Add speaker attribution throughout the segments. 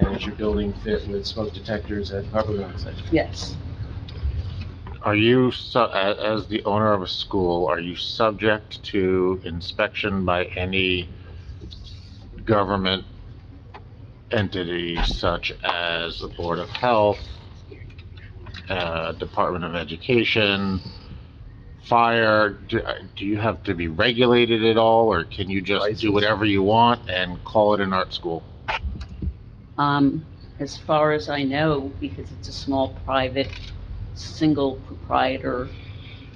Speaker 1: does your building fit with smoke detectors and carbon monoxide?
Speaker 2: yes.
Speaker 3: Are you, su- a- as the owner of a school, are you subject to inspection by any government entity such as the Board of Health, uh, Department of Education, Fire? Do do you have to be regulated at all, or can you just do
Speaker 1: Licensed.
Speaker 3: whatever you want and call it an art school?
Speaker 2: Um, as far as I know, because it's a small private, single proprietor,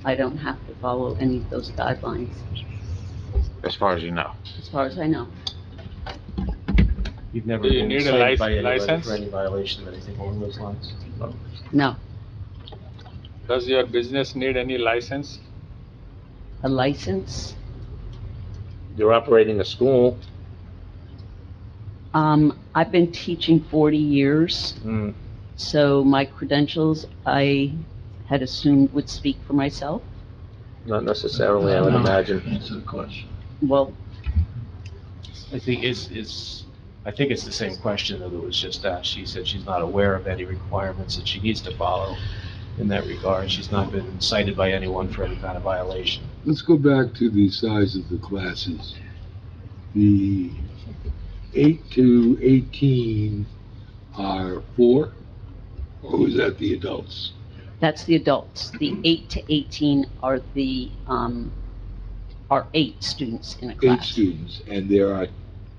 Speaker 2: I don't have to follow any of those guidelines,
Speaker 3: As far as you know,
Speaker 2: as far as I know.
Speaker 1: You've never
Speaker 4: Do you
Speaker 1: been
Speaker 4: need a
Speaker 1: cited by
Speaker 4: lic-
Speaker 1: anybody
Speaker 4: license?
Speaker 1: for any violation of anything along those lines?
Speaker 2: No,
Speaker 4: Does your business need any license?
Speaker 2: a license?
Speaker 5: You're operating a school.
Speaker 2: Um, I've been teaching 40 years,
Speaker 5: Mm.
Speaker 2: so my credentials, I had assumed would speak for myself.
Speaker 5: Not necessarily, I would
Speaker 1: No.
Speaker 5: imagine.
Speaker 2: Well,
Speaker 1: I think it's, it's, I think it's the same question that was just asked. She said she's not aware of any requirements that she needs to follow in that regard. She's not been cited by anyone for any kind of violation.
Speaker 6: Let's go back to the size of the classes. The eight to eighteen are four, or is that the adults?
Speaker 2: that's the adults. The 8 to 18 are the, um, are eight students in a
Speaker 6: Eight
Speaker 2: class.
Speaker 6: students, and there are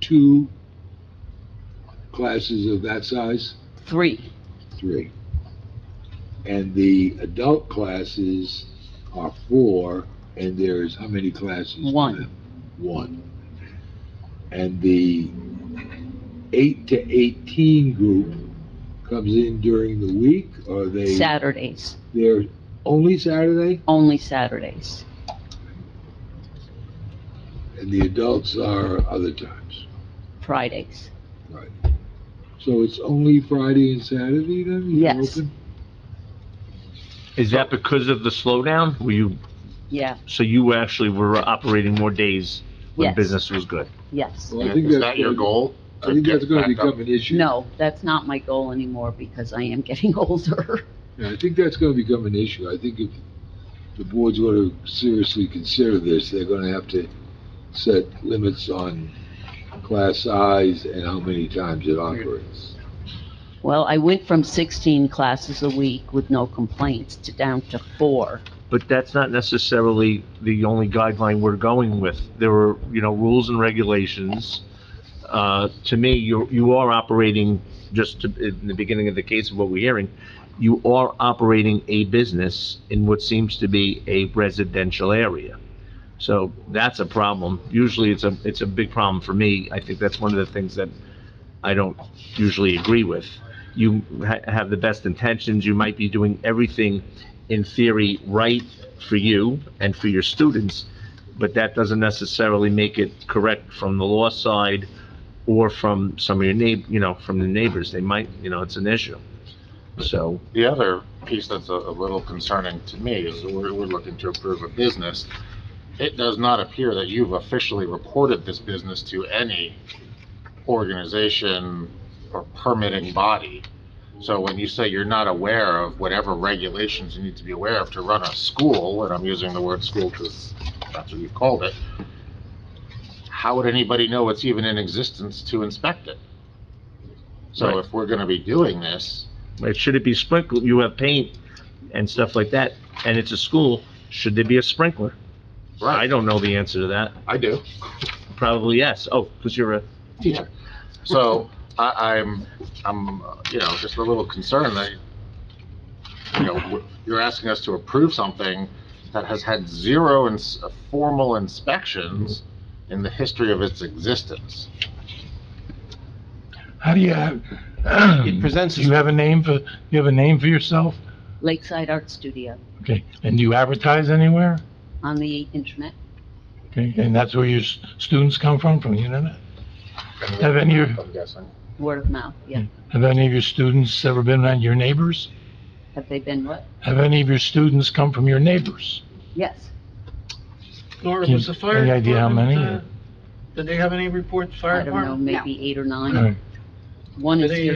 Speaker 6: two classes of that size?
Speaker 2: Three,
Speaker 6: Three. And the adult classes are four, and there's how many classes? for
Speaker 2: One.
Speaker 6: them? One. And the eight to eighteen group comes in during the week, or they?
Speaker 2: Saturdays,
Speaker 6: They're only Saturday,
Speaker 2: only Saturdays.
Speaker 6: and the adults are other times,
Speaker 2: Fridays,
Speaker 6: right? So it's only Friday and Saturday then? you're
Speaker 2: Yes.
Speaker 6: open?
Speaker 7: Is that because of the slowdown? Were you,
Speaker 2: yeah,
Speaker 7: so you actually were operating more days when
Speaker 2: Yes.
Speaker 7: business was good?
Speaker 2: yes.
Speaker 6: Well, I think
Speaker 3: is
Speaker 6: that's
Speaker 3: that your
Speaker 6: gonna-
Speaker 3: goal?
Speaker 6: I think that's gonna
Speaker 3: Back up.
Speaker 6: become an issue.
Speaker 2: No, that's not my goal anymore because I am getting older.
Speaker 6: Yeah, I think that's gonna become an issue. I think if the board's gonna seriously consider this, they're gonna have to set limits on class size and how many times it operates.
Speaker 2: Well, I went from 16 classes a week with no complaints to down to four.
Speaker 7: But that's not necessarily the only guideline we're going with. There were, you know, rules and regulations. Uh, to me, you, you are operating, just to, in the beginning of the case of what we're hearing, you are operating a business in what seems to be a residential area. So that's a problem. Usually it's a, it's a big problem for me. I think that's one of the things that I don't usually agree with. You ha- have the best intentions, you might be doing everything in theory right for you and for your students, but that doesn't necessarily make it correct from the law side or from some of your neigh, you know, from the neighbors. They might, you know, it's an issue. So,
Speaker 3: The other piece that's a, a little concerning to me is we're, we're looking to approve a business. It does not appear that you've officially reported this business to any organization or permitting body. So when you say you're not aware of whatever regulations you need to be aware of to run a school, and I'm using the word school because that's what you've called it, how would anybody know it's even in existence to inspect it? So
Speaker 7: Right.
Speaker 3: if we're gonna be doing this,
Speaker 7: like, should it be sprinkled? You have paint and stuff like that, and it's a school, should there be a sprinkler? I
Speaker 3: right,
Speaker 7: don't know the answer to that.
Speaker 3: I do.
Speaker 7: Probably yes. Oh, because you're a
Speaker 3: teacher. So I, I'm, I'm, uh, you know, just a little concerned that, you know, w- you're asking us to approve something that has had zero ins- uh, formal inspections in the history of its existence.
Speaker 8: How do you have,
Speaker 1: It presents,
Speaker 8: do you have a name for, you have a name for yourself?
Speaker 2: Lakeside Art Studio
Speaker 8: Okay, and do you advertise anywhere?
Speaker 2: on the internet.
Speaker 8: Okay, and that's where your s- students come from, from the internet? Have any, of-
Speaker 3: I'm guessing.
Speaker 2: Word of mouth, yeah.
Speaker 7: Hmm.
Speaker 8: have any of your students ever been around your neighbors?
Speaker 2: Have they been what?
Speaker 8: Have any of your students come from your neighbors?
Speaker 2: Yes.
Speaker 9: Laura,
Speaker 8: Can-
Speaker 9: was the fire
Speaker 8: any idea how
Speaker 9: department,
Speaker 8: many,
Speaker 9: uh, Did they have any reports, fire
Speaker 2: I don't know,
Speaker 9: department?
Speaker 2: maybe eight or
Speaker 8: All right.
Speaker 2: nine. One is
Speaker 9: Did they
Speaker 2: here